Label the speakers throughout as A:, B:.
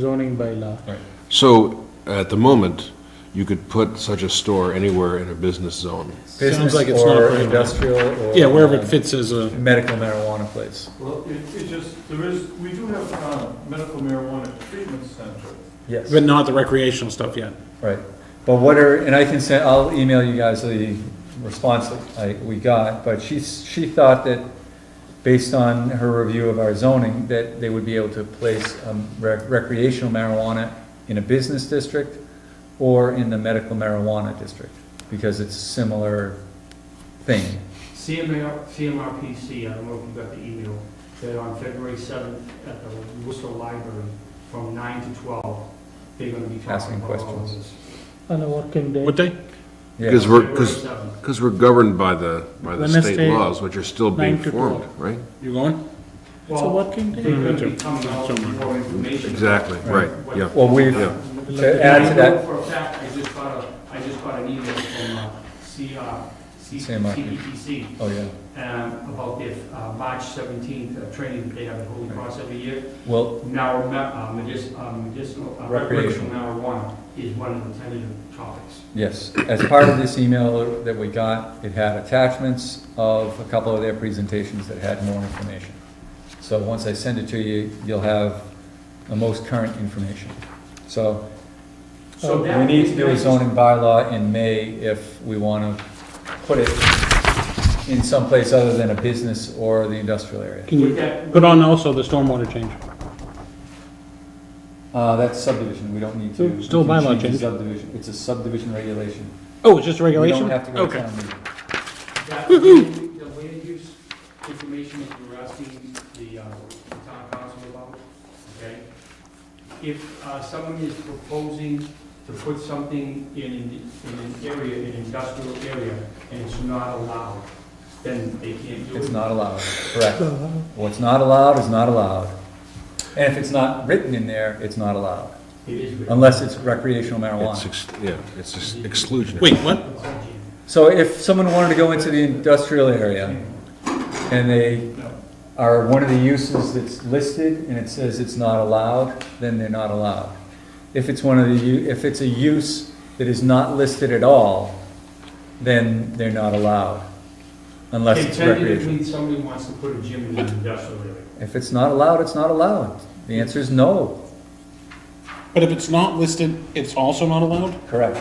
A: zoning bylaw.
B: So, at the moment, you could put such a store anywhere in a business zone.
A: Sounds
C: Business
A: like it's not
C: or
A: prohibited.
C: industrial or.
A: Yeah, wherever it
C: um,
A: fits as a,
C: Medical marijuana place.
D: Well, it, it just, there is, we do have uh, medical marijuana treatment center.
C: Yes.
A: but not the recreational stuff yet.
C: Right, but what are, and I can send, I'll email you guys the response that I, we got, but she's, she thought that based on her review of our zoning, that they would be able to place um, rec- recreational marijuana in a business district or in the medical marijuana district, because it's a similar thing.
E: CMR, CMRPC, I don't know if you got the email, that on February 7th at the Worcester Library, from 9 to 12, they're going to be talking
C: Asking
E: about all of
C: questions.
E: this.
F: on a working day.
A: What day?
C: Yeah,
B: Because we're,
E: February
B: because,
E: 7th.
B: because we're governed by the, by the state
F: Wednesday,
B: laws, which are still being
F: nine to
B: formed, right?
A: You going?
F: It's a
E: Well,
F: working
E: they're
F: day.
E: going to be coming out with more information.
B: Exactly, right,
E: What-
B: yeah.
C: well, we've,
B: Yeah.
C: to add to
E: And I know
C: that,
E: for a fact, I just got a, I just got an email from uh, C- uh, C-
C: CMRPC.
E: CPTC
C: oh, yeah,
E: um, about their uh, March 17th uh, training that they have at Holy Cross every year.
C: well,
E: Now, uh, medic- uh, medicinal, uh,
C: Recreational.
E: recreational marijuana is one of the tentative topics.
C: Yes, as part of this email that we got, it had attachments of a couple of their presentations that had more information. So once I send it to you, you'll have the most current information. So
E: So
C: Oh, we
E: that
C: need
E: is
C: to do a
E: nice.
C: zoning bylaw in May if we want to put it in some place other than a business or the industrial area.
A: Can
E: With
A: you
E: that-
A: put on also the stormwater change?
C: Uh, that's subdivision, we don't need to.
A: Still
C: we can
A: bylaw
C: the
A: change.
C: Subdivision, it's a subdivision regulation.
A: Oh, it's just a regulation?
C: We don't have to go to
A: Okay.
C: town meeting.
E: that- The land use information that you were asking the uh, the town council about, okay? If uh, someone is proposing to put something in, in an area, an industrial area, and it's not allowed, then they can't do it.
C: It's not allowed, correct. What's not allowed is not allowed. And if it's not written in there, it's not allowed,
E: It is. written.
C: unless it's recreational
B: It's,
C: marijuana.
B: ex- yeah, it's ex- exclusionary.
A: Wait, what?
C: So if someone wanted to go into the industrial area, and they
E: No.
C: are one of the uses that's listed, and it says it's not allowed, then they're not allowed. If it's one of the, u- if it's a use that is not listed at all, then they're not allowed, unless it's recreational.
E: Tentatively, somebody wants to put a gym in an industrial area.
C: If it's not allowed, it's not allowed. The answer is no,
A: But if it's not listed, it's also not allowed?
C: correct.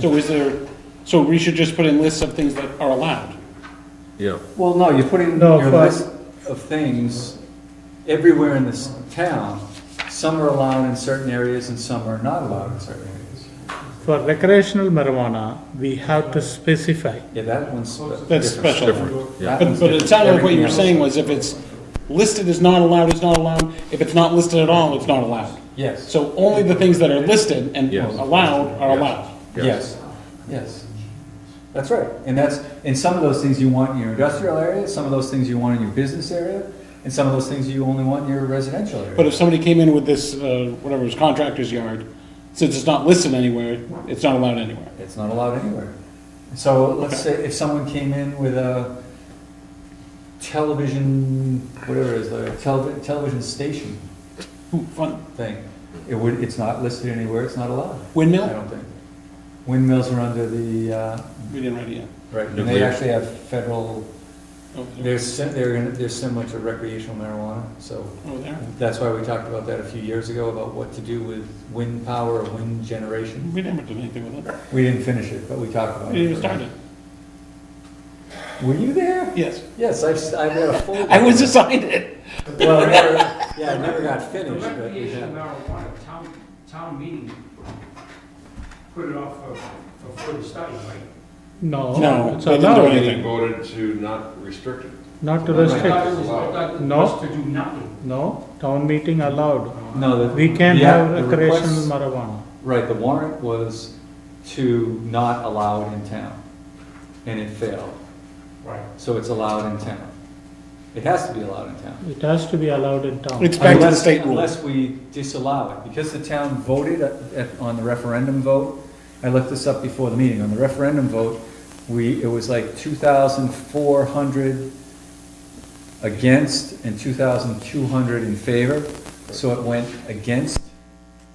A: So is there, so we should just put in lists of things that are allowed?
B: Yeah,
C: Well, no, you put in
F: No,
C: your
F: but-
C: list of things everywhere in this town. Some are allowed in certain areas and some are not allowed in certain areas.
F: For recreational marijuana, we have to specify.
C: Yeah, that one's. spe-
A: That's
C: different.
A: special.
B: different, yeah.
C: That
A: But,
C: one's
A: but it
C: different.
A: sounded like what you were
C: Everything
A: saying was
C: else-
A: if it's listed as not allowed, it's not allowed. If it's not listed at all, it's not allowed.
C: Yes,
A: So only the things that are listed and
B: Yes.
A: allowed are
B: Yes.
A: allowed.
C: yes, yes. That's right. And that's, and some of those things you want in your industrial area, some of those things you want in your business area, and some of those things you only want in your residential area.
A: But if somebody came in with this, uh, whatever it was, contractor's yard, since it's not listed anywhere, it's not allowed anywhere.
C: It's not allowed anywhere. So let's say if someone came in with a television, whatever it is, the tele- television station
A: Ooh, fun.
C: thing, it would, it's not listed anywhere, it's not allowed, I
A: Windmill?
C: don't think. Windmills are under the, uh,
A: We didn't write it yet.
C: right, and they
B: Nuclear.
C: actually have federal,
A: Over there.
C: they're, si- they're, in- they're similar to recreational marijuana, so
A: Over Oh, there.
C: that's why we talked about that a few years ago, about what to do with wind power, or wind generation.
A: We never did anything with it.
C: We didn't finish it, but we talked
A: We
C: about it.
A: didn't even start it.
C: Were you there?
A: Yes.
C: Yes, I've, s- I've got a folder.
A: I was assigned it.
C: Well, it never, yeah, it never got
E: The
C: finished, but we
E: recreational
C: had.
E: marijuana, town, town meeting, put it off for, for further study, right?
F: No.
A: No,
F: It's
A: they didn't do
F: allowed.
A: anything.
B: voted to not restrict it.
F: Not to
E: I thought
F: restrict.
E: it was, I thought it
F: No.
E: was to do nothing.
F: No, town meeting allowed.
C: No, the.
F: We can
C: yeah,
F: have
C: the
F: recreational
C: request-
F: marijuana.
C: Right, the warrant was to not allow it in town, and it failed,
E: Right.
C: so it's allowed in town. It has to be allowed in town.
F: It has to be allowed in town.
A: It's back to the
C: Unless-
A: state rule.
C: Unless we disallow it, because the town voted at- at- on the referendum vote, I looked this up before the meeting, on the referendum vote, we, it was like two thousand four hundred against and two thousand two hundred in favor, so it went against